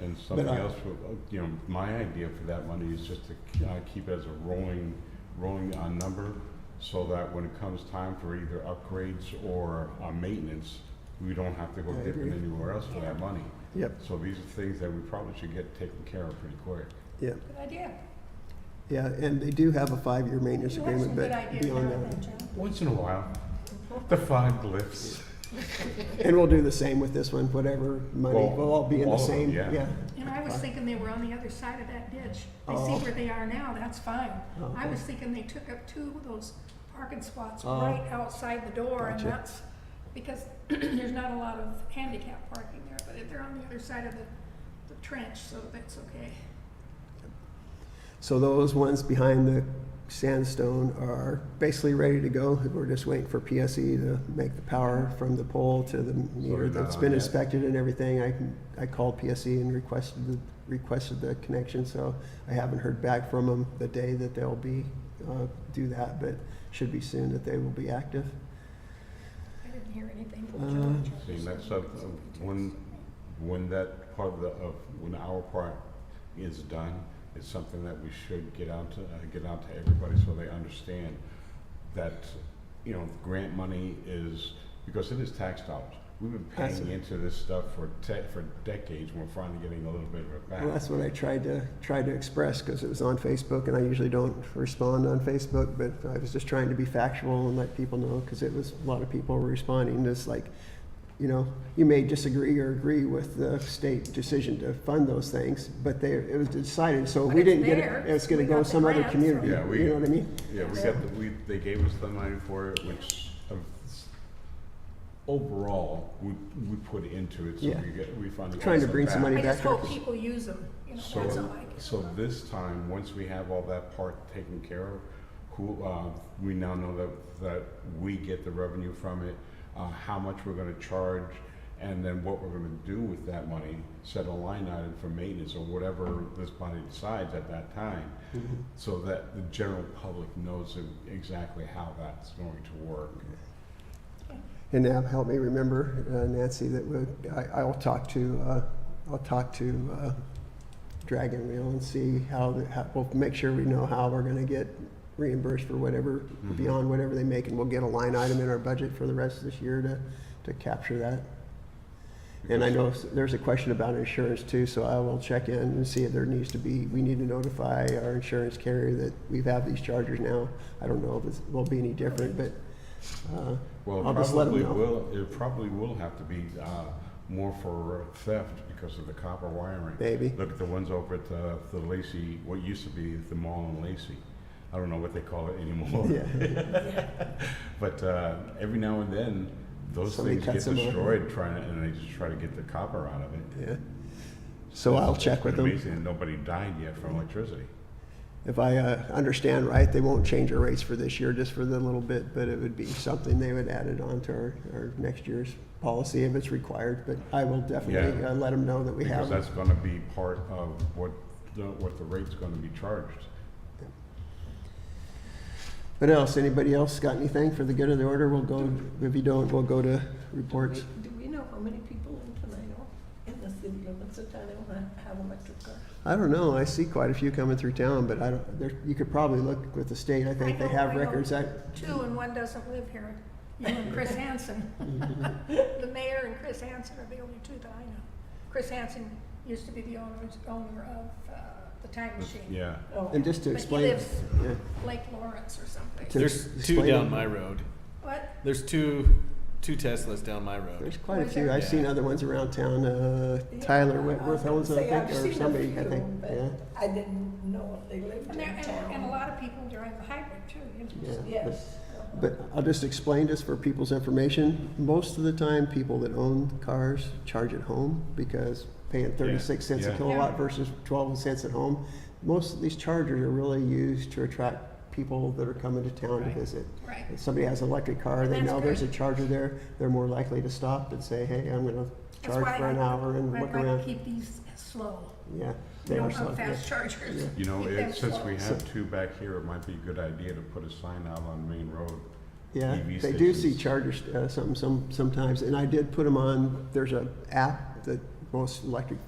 And something I- else, for- you know, my idea for that money is just to uh, keep it as a rolling, rolling uh, number so that when it comes time for either upgrades or uh, maintenance, we don't have to go I dipping agree. anywhere else for that money. Yep, So these are things that we probably should get taken care of pretty quick. yep, Good idea. yeah, and they do have a five-year maintenance You have some agreement, good but ideas now beyond that. then, John. Once in a while, the five lifts. And we'll do the same with this one, whatever money, Well, we'll all be in all the of them, same, yeah. yeah. And I was thinking they were on the other side of that ditch. I Oh. see where they are now, that's fine. Oh, I okay. was thinking they took up two of those parking spots Oh. right outside the door and Gotcha. that's because there's not a lot of handicap parking there, but if they're on the other side of the, the trench, so that's okay. So those ones behind the sandstone are basically ready to go. We're just waiting for PSE to make the power from the pole to the meter they're not that's been on yet. inspected and everything. I, can- I called PSE and requested, the requested the connection, so I haven't heard back from them the day that they'll be, uh, do that, but should be soon that they will be active. I didn't hear anything from Uh, George. See, and that's up, um, when, when that part of the, of, when our part is done, it's something that we should get out to, uh, get out to everybody so they understand that, you know, grant money is, because it is tax dollars. We've been That's paying it. into this stuff for te- for decades, and we're finally getting a little bit of it back. Well, that's what I tried to, tried to express, because it was on Facebook, and I usually don't respond on Facebook, but I was just trying to be factual and let people know, because it was, a lot of people were responding, just like, you know, you may disagree or agree with the state decision to fund those things, but they, it was decided, so But we it's didn't get there. it, it's gonna We go got the some other grant, so- community, Yeah, we- you know what I mean? Yeah, we got, the we, they gave us the money for it, which uh, s- overall, we, we put into it, so Yeah. we get, we finally. got Trying to bring some back. money I just back up. hope people use them, you know, that's all So, I can. so this time, once we have all that part taken care of, who, uh, we now know that, that we get the revenue from it, uh, how much we're gonna charge, and then what we're gonna do with that money, set a line item for maintenance or whatever this body decides at that time, so that the general public knows e-, exactly how that's going to work. And now help me remember, uh, Nancy, that would, I, I'll talk to, uh, I'll talk to, uh, Dragon Wheel and see how, the- how, we'll make sure we know how we're gonna get reimbursed for whatever, Mm-hmm. beyond whatever they make, and we'll get a line item in our budget for the rest of this year to, to capture that. And I know s- there's a question about insurance too, so I will check in and see if there needs to be, we need to notify our insurance carrier that we have these chargers now. I don't know if it's, will be any different, but, uh, Well, I'll it just let 'em probably know. will, it probably will have to be, uh, more for theft because of the copper wiring. maybe. Look at the ones over at uh, the Lacey, what used to be the mall in Lacey. I don't know what they call it anymore. Yeah, But uh, every now and then, those Somebody things get cuts 'em off. destroyed trying to, and they just try to get the copper out of it. yeah. So I'll It's check with been them. Amazing, that nobody died yet from electricity. If I uh, understand right, they won't change our rates for this year, just for the little bit, but it would be something they would add it on to our, our next year's policy if it's required. But I will definitely Yeah. uh, let them know that we Because have. that's gonna be part of what, the- what the rate's gonna be charged. What else? Anybody else got anything for the good of the order? We'll go, if you don't, we'll go to reports. Do we know how many people in Tenino, in the city limits of Tenino ha- have electric cars? I don't know. I see quite a few coming through town, but I don't, there, you could probably look with the state. I think they know, I have know. records. I, Two and one doesn't live here, you and Chris Hansen. The mayor and Chris Hansen are the only two that I know. Chris Hansen used to be the owner, owner of uh, the time machine. Yeah. Oh, and just to But he explain. lives yeah, Lake Lawrence or To- something. There's two explain it. down my road. What? There's two two Teslas down my road. There's quite a Was few. there- I've seen other ones around town. Uh, Tyler Whitworth owns them, I Yeah, I think, was or gonna say, I've somebody, seen a I few, think, but yeah. I didn't know if they lived And there, in and, and a town. lot of people drive the hybrid too, you know. Yeah. of- Yes. But I'll just explain this for people's information. Most of the time, people that own cars charge at home because paying thirty-six cents a yeah. kilowatt Yeah. versus twelve cents at home. Most of these chargers are really used to attract people that are coming to town to Right. visit. Right. If somebody has an electric car, they That's know there's a great. charger there, they're more likely to stop and say, hey, I'm gonna That's charge why for an I- hour and I look like to around. Keep these slow, Yeah. you they know, are slow, on yeah. fast chargers. You know, Keep them it- since slow. we have two back here, it might be a good idea to put a sign out on Main Road. Yeah, EV they do see stations. chargers, uh, some, some, sometimes, and I did put them on, there's a app that most electric